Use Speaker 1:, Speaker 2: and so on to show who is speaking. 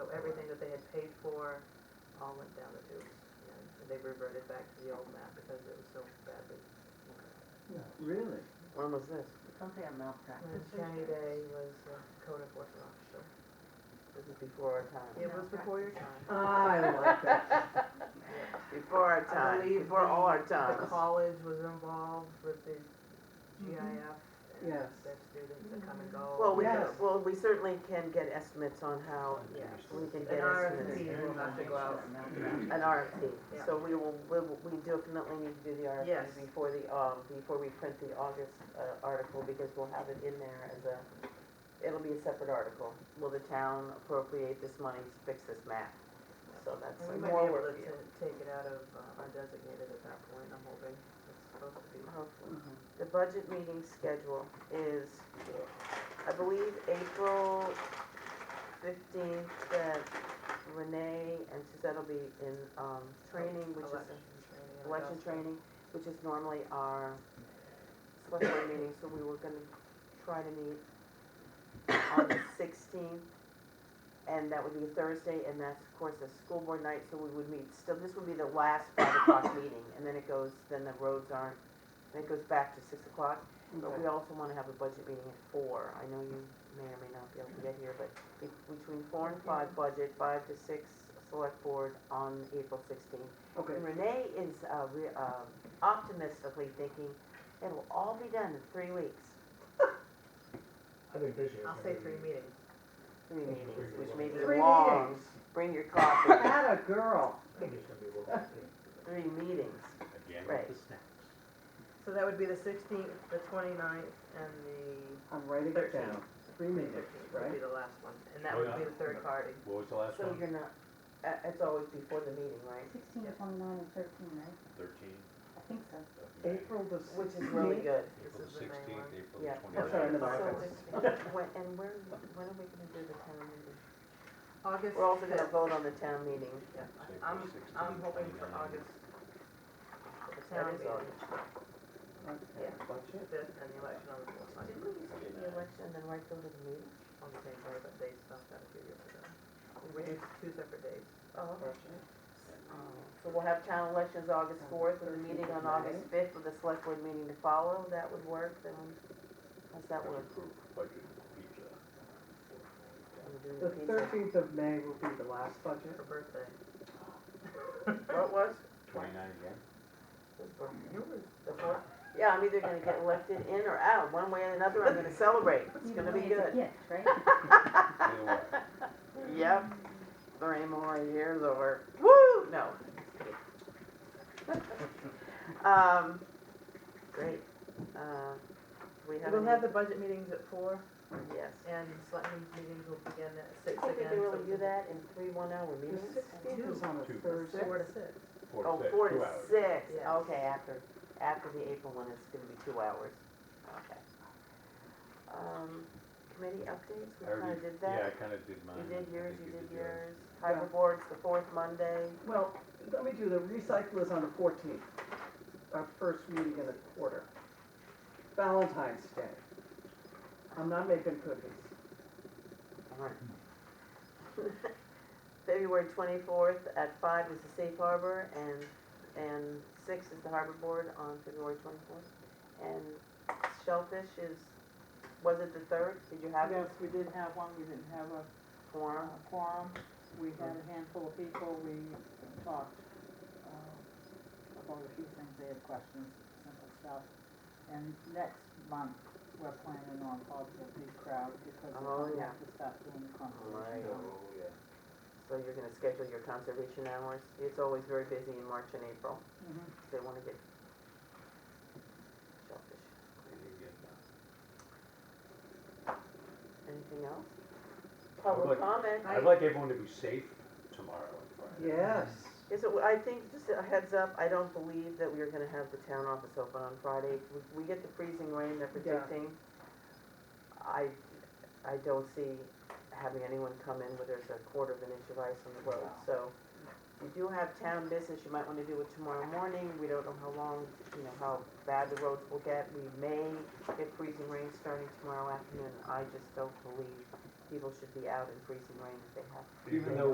Speaker 1: get paid for all went down the tubes. And they reverted back to the old map because it was so badly.
Speaker 2: Really?
Speaker 3: When was this?
Speaker 4: Something on
Speaker 1: And
Speaker 4: malpractice.
Speaker 1: County Day was uh, code enforcement officer.
Speaker 3: This is before our time.
Speaker 1: It was before your time.
Speaker 2: I like that.
Speaker 3: Before our
Speaker 1: I
Speaker 3: time,
Speaker 1: believe
Speaker 3: before all our
Speaker 1: The
Speaker 3: times.
Speaker 1: college was involved with the GIF and
Speaker 2: Yes.
Speaker 1: their students that come and go.
Speaker 3: Mm-hmm. Well, we, can-
Speaker 2: Yes.
Speaker 3: well, we certainly can get estimates on how
Speaker 1: Yeah.
Speaker 3: we can
Speaker 1: An
Speaker 3: get estimates.
Speaker 1: RFP will have to go out.
Speaker 3: An RFP.
Speaker 1: Yeah.
Speaker 3: So we will, we will- we definitely need to do the
Speaker 1: Yes.
Speaker 3: RFP before the, um, before we print the August uh, article because we'll have it in there as a, it'll be a separate article. Will the town appropriate this money to fix this map? So that's
Speaker 1: And we might be
Speaker 3: more
Speaker 1: able to
Speaker 3: work.
Speaker 1: t- take it out of uh, undesignated at that point, I'm hoping. It's supposed to be.
Speaker 3: Hopefully. The budget meeting schedule is, I believe, April fifteenth, that Renee and Suzette will be in, um, training, which is,
Speaker 1: Election training and
Speaker 3: election
Speaker 1: adjustment.
Speaker 3: training, which is normally our select board meeting, so we were gonna try to meet on the sixteenth, and that would be a Thursday, and that's, of course, a school board night, so we would meet, still, this would be the last five o'clock meeting, and then it goes, then the roads aren't, then it goes back to six o'clock, but we also wanna have a budget meeting at four, I know you may or may not be able to get here, but be- between four and five budget, five to six select board on April sixteenth.
Speaker 2: Okay,
Speaker 3: And Renee is uh, re- um, optimistically thinking it'll all be done in three weeks,
Speaker 5: I think this year.
Speaker 1: I'll say three meetings.
Speaker 3: three meetings, which may
Speaker 2: Three
Speaker 3: be long.
Speaker 2: meetings.
Speaker 3: Bring your coffee,
Speaker 2: that a girl.
Speaker 5: I think it's gonna be a little bit.
Speaker 3: three meetings.
Speaker 6: Again
Speaker 3: Right.
Speaker 6: with the snacks.
Speaker 1: So that would be the sixteenth, the twenty-ninth, and the
Speaker 2: I'm writing it down. Three minutes,
Speaker 1: fifteenth would be
Speaker 2: right?
Speaker 1: the last one. And that would be the third party.
Speaker 6: What was the last
Speaker 3: So
Speaker 6: one?
Speaker 3: you're not, uh, it's always before the meeting, right?
Speaker 4: Sixteen, twenty-nine, and thirteen, right?
Speaker 6: Thirteen
Speaker 4: I think so.
Speaker 6: of May.
Speaker 2: April the
Speaker 3: Which
Speaker 2: sixteenth.
Speaker 3: is really good.
Speaker 6: April
Speaker 1: This is the May
Speaker 6: sixteenth,
Speaker 1: one.
Speaker 6: April
Speaker 3: Yeah.
Speaker 6: twenty-ninth.
Speaker 2: That's right, in the
Speaker 3: So
Speaker 2: Marcus.
Speaker 3: it's- it's when- And where, when are we gonna do the town meeting?
Speaker 1: August
Speaker 3: We're also gonna
Speaker 1: fifth.
Speaker 3: vote on the town meeting.
Speaker 1: Yeah,
Speaker 6: April
Speaker 1: I'm,
Speaker 6: 16th,
Speaker 1: I'm hoping for
Speaker 6: 29th.
Speaker 1: August. for The
Speaker 3: That
Speaker 1: town
Speaker 3: is
Speaker 1: meeting,
Speaker 3: August.
Speaker 1: Yeah.
Speaker 2: Budget.
Speaker 1: fifth, and the election on the fourth,
Speaker 3: Didn't we just do the election and then right go to the meeting?
Speaker 1: on the same day, but they stopped that a few years ago. We did two separate days.
Speaker 3: Oh, okay.
Speaker 2: Budget.
Speaker 3: So we'll have town elections August fourth, with a meeting on August fifth, with a select board meeting to follow, that would work, then, how's that work?
Speaker 6: Approved budget pizza.
Speaker 3: We're
Speaker 2: The
Speaker 3: doing pizza.
Speaker 2: thirteenth of May will be the last budget.
Speaker 1: Her birthday.
Speaker 3: What was?
Speaker 6: Twenty-nine again?
Speaker 3: The fourth? Yeah, I'm either gonna get elected in or out, one way or another, I'm gonna celebrate, it's
Speaker 4: Either
Speaker 3: gonna be
Speaker 4: way, it's a
Speaker 3: good.
Speaker 4: gift, right?
Speaker 6: Either way.
Speaker 3: Yep, three more years over, woo, no. Um, great, uh, we have.
Speaker 1: We'll
Speaker 3: any-
Speaker 1: have the budget meetings at four,
Speaker 3: Yes.
Speaker 1: and selectmen's meetings will begin at six
Speaker 3: I think we
Speaker 1: again.
Speaker 3: can really
Speaker 1: so
Speaker 3: do that in three oh, one-hour
Speaker 2: The
Speaker 3: meetings.
Speaker 2: sixteenth is on a
Speaker 6: Two.
Speaker 2: Thursday.
Speaker 1: Four to six.
Speaker 6: Four
Speaker 3: Oh,
Speaker 6: to six,
Speaker 3: four
Speaker 6: two
Speaker 3: to
Speaker 6: hours.
Speaker 3: six,
Speaker 1: Yes.
Speaker 3: okay, after, after the April one, it's gonna be two hours, okay. Um, committee updates, we
Speaker 6: I already-
Speaker 3: kinda did
Speaker 6: Yeah, I
Speaker 3: that.
Speaker 6: kinda did mine.
Speaker 3: You did
Speaker 6: I
Speaker 3: yours,
Speaker 6: think
Speaker 3: you did
Speaker 6: yours.
Speaker 3: yours. Harbor Board's the fourth Monday,
Speaker 2: Well, let me do, the recycle is on the fourteenth, our first meeting in the quarter. Valentine's Day. I'm not making cookies.
Speaker 3: February twenty-fourth at five is the Safe Harbor, and, and six is the Harbor Board on February twenty-fourth. And Shellfish is, was it the third? Did you have
Speaker 7: Yes, we did have one, we didn't have a
Speaker 3: quorum?
Speaker 7: uh, quorum, we had a handful of people, we talked uh, about a few things, they had questions, simple stuff. And next month, we're planning on probably a big crowd because
Speaker 3: Oh,
Speaker 7: we
Speaker 3: yeah.
Speaker 7: have to start doing the
Speaker 3: Right.
Speaker 7: conservation. hours.
Speaker 3: So you're gonna schedule your conservation hours? It's always very busy in March and April,
Speaker 7: Mhm.
Speaker 3: 'cause they wanna get shellfish.
Speaker 6: You did good.
Speaker 3: Anything else?
Speaker 6: like-
Speaker 3: Public comment?
Speaker 6: I'd like everyone to be safe tomorrow and Friday.
Speaker 2: Yes.
Speaker 3: Is it, I think, just a heads up, I don't believe that we are gonna have the town office open on Friday. If We we get the freezing rain they're
Speaker 2: Yeah.
Speaker 3: predicting. I, I don't see having anyone come in where there's a quarter of an inch of ice on the road,
Speaker 6: Wow.
Speaker 3: so. You do have town business, you might wanna do it tomorrow morning, we don't know how long, you know, how bad the roads will get. We may get freezing rain starting tomorrow afternoon, I just don't believe people should be out in freezing rain if they have to.
Speaker 6: Even though